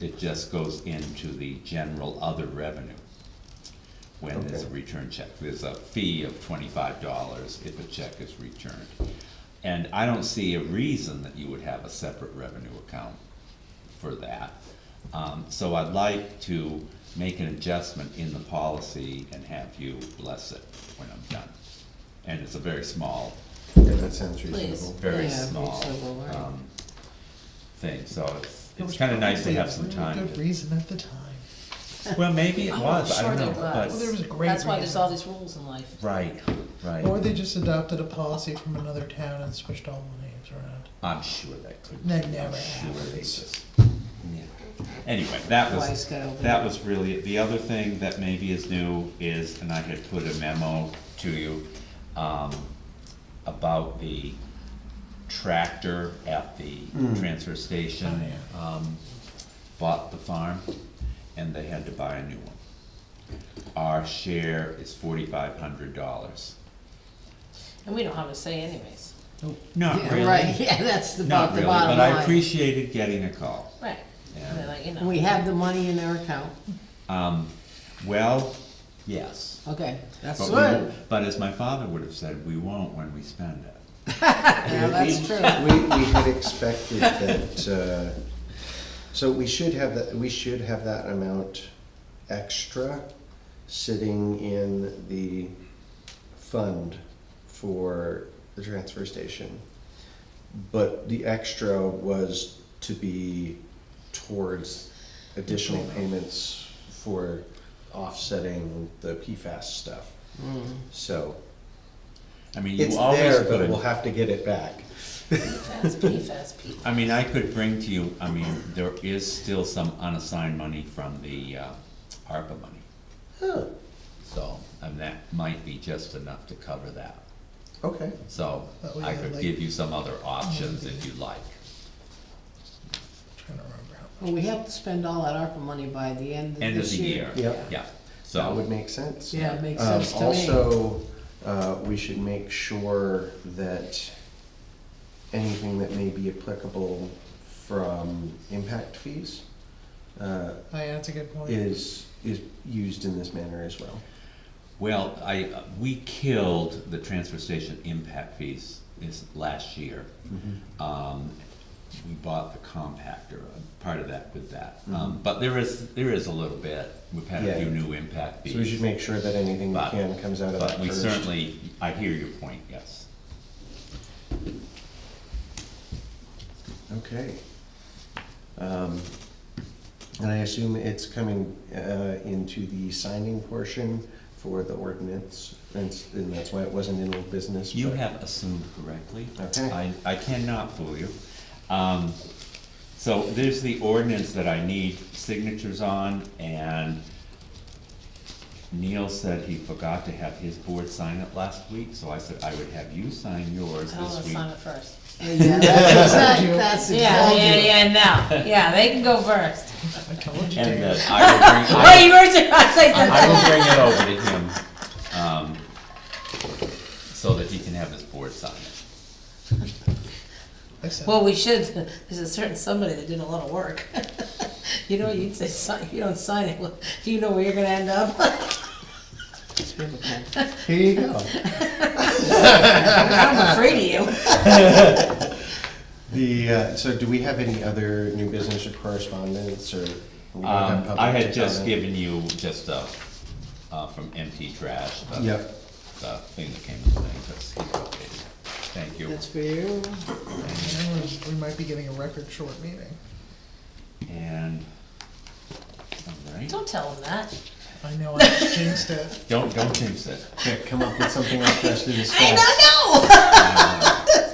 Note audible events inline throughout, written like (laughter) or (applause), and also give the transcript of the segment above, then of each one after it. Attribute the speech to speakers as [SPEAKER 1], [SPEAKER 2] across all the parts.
[SPEAKER 1] It just goes into the general other revenue when there's a
[SPEAKER 2] Okay.
[SPEAKER 1] return check. There's a fee of twenty-five dollars if a check is returned. And I don't see a reason that you would have a separate revenue account for that. Um, so I'd like to make an adjustment in the policy and have you bless it when I'm done. And it's a very small
[SPEAKER 2] Yeah, that sounds
[SPEAKER 3] Please.
[SPEAKER 2] reasonable.
[SPEAKER 1] very
[SPEAKER 3] Yeah,
[SPEAKER 1] small,
[SPEAKER 3] reasonable, right.
[SPEAKER 1] um, thing, so it's,
[SPEAKER 4] It
[SPEAKER 1] it's
[SPEAKER 4] was
[SPEAKER 1] kinda nice to
[SPEAKER 4] probably a
[SPEAKER 1] have some
[SPEAKER 4] really
[SPEAKER 1] time.
[SPEAKER 4] Good
[SPEAKER 1] to-
[SPEAKER 4] reason at the time.
[SPEAKER 1] Well, maybe it
[SPEAKER 3] Oh,
[SPEAKER 1] was, I
[SPEAKER 3] sure
[SPEAKER 1] don't know,
[SPEAKER 3] it
[SPEAKER 1] but-
[SPEAKER 3] was.
[SPEAKER 4] Well, there was a great
[SPEAKER 3] That's why there's
[SPEAKER 4] reason.
[SPEAKER 3] all these rules in life.
[SPEAKER 1] Right,
[SPEAKER 4] Or
[SPEAKER 1] right,
[SPEAKER 4] they just adopted a policy from another town and switched all the names around.
[SPEAKER 1] I'm sure that could.
[SPEAKER 4] That never
[SPEAKER 1] Sure they
[SPEAKER 4] happens.
[SPEAKER 1] just, yeah. Anyway, that
[SPEAKER 3] Wise
[SPEAKER 1] was,
[SPEAKER 3] guy over
[SPEAKER 1] that
[SPEAKER 3] there.
[SPEAKER 1] was really, it. the other thing that maybe is new is, and I had put a memo to you, um, about the tractor at the transfer station.
[SPEAKER 4] Mm. Oh,
[SPEAKER 1] Um, bought the farm and they had to buy a new one. Our share is forty-five hundred dollars.
[SPEAKER 3] And we don't have a say anyways.
[SPEAKER 1] Not
[SPEAKER 5] Yeah,
[SPEAKER 1] really.
[SPEAKER 5] Right, (laughs) yeah, that's the
[SPEAKER 1] Not
[SPEAKER 5] about the
[SPEAKER 1] really,
[SPEAKER 5] bottom
[SPEAKER 1] but I
[SPEAKER 5] line.
[SPEAKER 1] appreciated getting a call.
[SPEAKER 3] Right.
[SPEAKER 1] Yeah.
[SPEAKER 3] They're like, you know.
[SPEAKER 5] We have the money in our account,
[SPEAKER 1] Um, well, yes.
[SPEAKER 5] okay, that's
[SPEAKER 1] But we
[SPEAKER 5] good,
[SPEAKER 1] won't- But as my father would have said, we won't when we spend it.
[SPEAKER 5] yeah, Uh, that's true.
[SPEAKER 2] We, we had expected that, uh, so we should have that, we should have that amount extra sitting in the fund for the transfer station. But the extra was to be towards additional payments for offsetting the PFAS stuff.
[SPEAKER 5] Hmm.
[SPEAKER 2] So
[SPEAKER 1] I mean,
[SPEAKER 2] it's
[SPEAKER 1] you always
[SPEAKER 2] there,
[SPEAKER 1] could.
[SPEAKER 2] but we'll have to get it back.
[SPEAKER 3] PFAS, PFAS, PFAS.
[SPEAKER 1] I mean, I could bring to you, I mean, there is still some unassigned money from the, uh, ARPA money.
[SPEAKER 2] Huh,
[SPEAKER 1] So, and that might be just enough to cover that.
[SPEAKER 2] okay.
[SPEAKER 1] So,
[SPEAKER 4] But we
[SPEAKER 1] I
[SPEAKER 4] had,
[SPEAKER 1] could
[SPEAKER 4] like-
[SPEAKER 1] give you some other options if you like.
[SPEAKER 4] Trying to remember how.
[SPEAKER 5] Well, we have to spend all that ARPA money by the end of
[SPEAKER 1] End of
[SPEAKER 5] this
[SPEAKER 1] the
[SPEAKER 5] year.
[SPEAKER 1] year.
[SPEAKER 2] Yep.
[SPEAKER 1] Yeah,
[SPEAKER 2] That would
[SPEAKER 1] so,
[SPEAKER 2] make sense.
[SPEAKER 5] Yeah, it makes
[SPEAKER 2] Um,
[SPEAKER 5] sense to me.
[SPEAKER 2] Also, uh, we should make sure that anything that may be applicable from impact fees uh,
[SPEAKER 4] Oh, yeah, that's a good point.
[SPEAKER 2] is, is used in this manner as well.
[SPEAKER 1] well, I, uh, we killed the transfer station impact fees this last year. Um, we bought the compactor, uh, part of that with that. Um, but there is, there is a little bit, we've had a
[SPEAKER 2] Mm-hmm. Yeah.
[SPEAKER 1] few new impact fees.
[SPEAKER 2] So we should make sure that anything we
[SPEAKER 1] But-
[SPEAKER 2] can comes out of that
[SPEAKER 1] But we
[SPEAKER 2] first.
[SPEAKER 1] certainly, I hear your point, yes.
[SPEAKER 2] Okay. Um, And I assume it's coming uh, into the signing portion for the ordinance, and s- and that's why it wasn't in old business.
[SPEAKER 1] You
[SPEAKER 2] but-
[SPEAKER 1] have assumed correctly.
[SPEAKER 2] Okay.
[SPEAKER 1] I, I cannot fool you. Um, so there's the ordinance that I need signatures on, and Neil said he forgot to have his board sign it last week, so I said I would have you sign yours
[SPEAKER 3] I'll
[SPEAKER 1] this week.
[SPEAKER 3] sign it first.
[SPEAKER 5] Yeah, (laughs) that's exact- that's
[SPEAKER 3] Yeah,
[SPEAKER 5] exact-
[SPEAKER 3] yeah, yeah, no. Yeah, they can go first.
[SPEAKER 4] I told you,
[SPEAKER 1] And
[SPEAKER 4] Dave.
[SPEAKER 1] that I will bring, (laughs) I will,
[SPEAKER 3] Wait, (laughs) you were just about to say
[SPEAKER 1] (laughs)
[SPEAKER 3] something.
[SPEAKER 1] I will bring it over to him, um, so that he can have his board sign it.
[SPEAKER 4] I said,
[SPEAKER 3] Well, we should, there's a certain somebody that did a lot of work. (laughs) You know, you'd say, sign, you don't sign it, well, you know where you're gonna end up. (laughs)
[SPEAKER 2] Here you go.
[SPEAKER 3] I'm afraid of you.
[SPEAKER 2] The, uh, so do we have any other new business or correspondence, or? we don't have
[SPEAKER 1] Um,
[SPEAKER 2] public
[SPEAKER 1] I had just
[SPEAKER 2] comment?
[SPEAKER 1] given you just, uh, uh, from empty trash, the,
[SPEAKER 2] Yep.
[SPEAKER 1] the thing that came with the thing, that's, updated. thank you.
[SPEAKER 5] That's for you,
[SPEAKER 4] you know, we might be getting a record short meeting.
[SPEAKER 1] And, all right,
[SPEAKER 3] Don't tell them that.
[SPEAKER 4] I know I jinxed it.
[SPEAKER 1] don't, don't jinx it.
[SPEAKER 2] Okay, Come up with something else for us to
[SPEAKER 3] I
[SPEAKER 2] discuss.
[SPEAKER 3] don't know.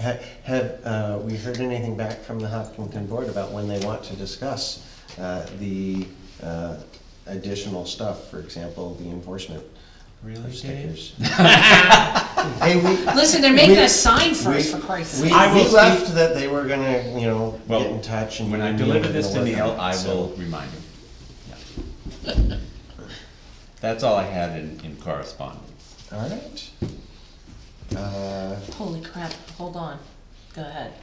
[SPEAKER 2] Ha- Have, uh, we heard anything back from the Hopkinton Board about when they want to discuss uh, the uh, additional stuff, for example, the enforcement
[SPEAKER 1] Really,
[SPEAKER 2] of
[SPEAKER 1] Dave?
[SPEAKER 2] stickers? (laughs) Hey, we,
[SPEAKER 3] Listen, they're making
[SPEAKER 2] We-
[SPEAKER 3] us sign
[SPEAKER 2] we,
[SPEAKER 3] first, for Christ's
[SPEAKER 2] we
[SPEAKER 3] sake.
[SPEAKER 1] I will
[SPEAKER 2] we
[SPEAKER 1] speak-
[SPEAKER 2] left that they were gonna, you know,
[SPEAKER 1] Well,
[SPEAKER 2] get in touch and.
[SPEAKER 1] When I
[SPEAKER 2] Neil
[SPEAKER 1] deliver
[SPEAKER 2] was
[SPEAKER 1] this to
[SPEAKER 2] gonna work
[SPEAKER 1] Neil,
[SPEAKER 2] on it,
[SPEAKER 1] I
[SPEAKER 2] so-
[SPEAKER 1] will remind him. Yeah. (laughs) That's all I had in, in correspondence.
[SPEAKER 2] All right. Uh,
[SPEAKER 3] Holy crap, hold on. Go ahead.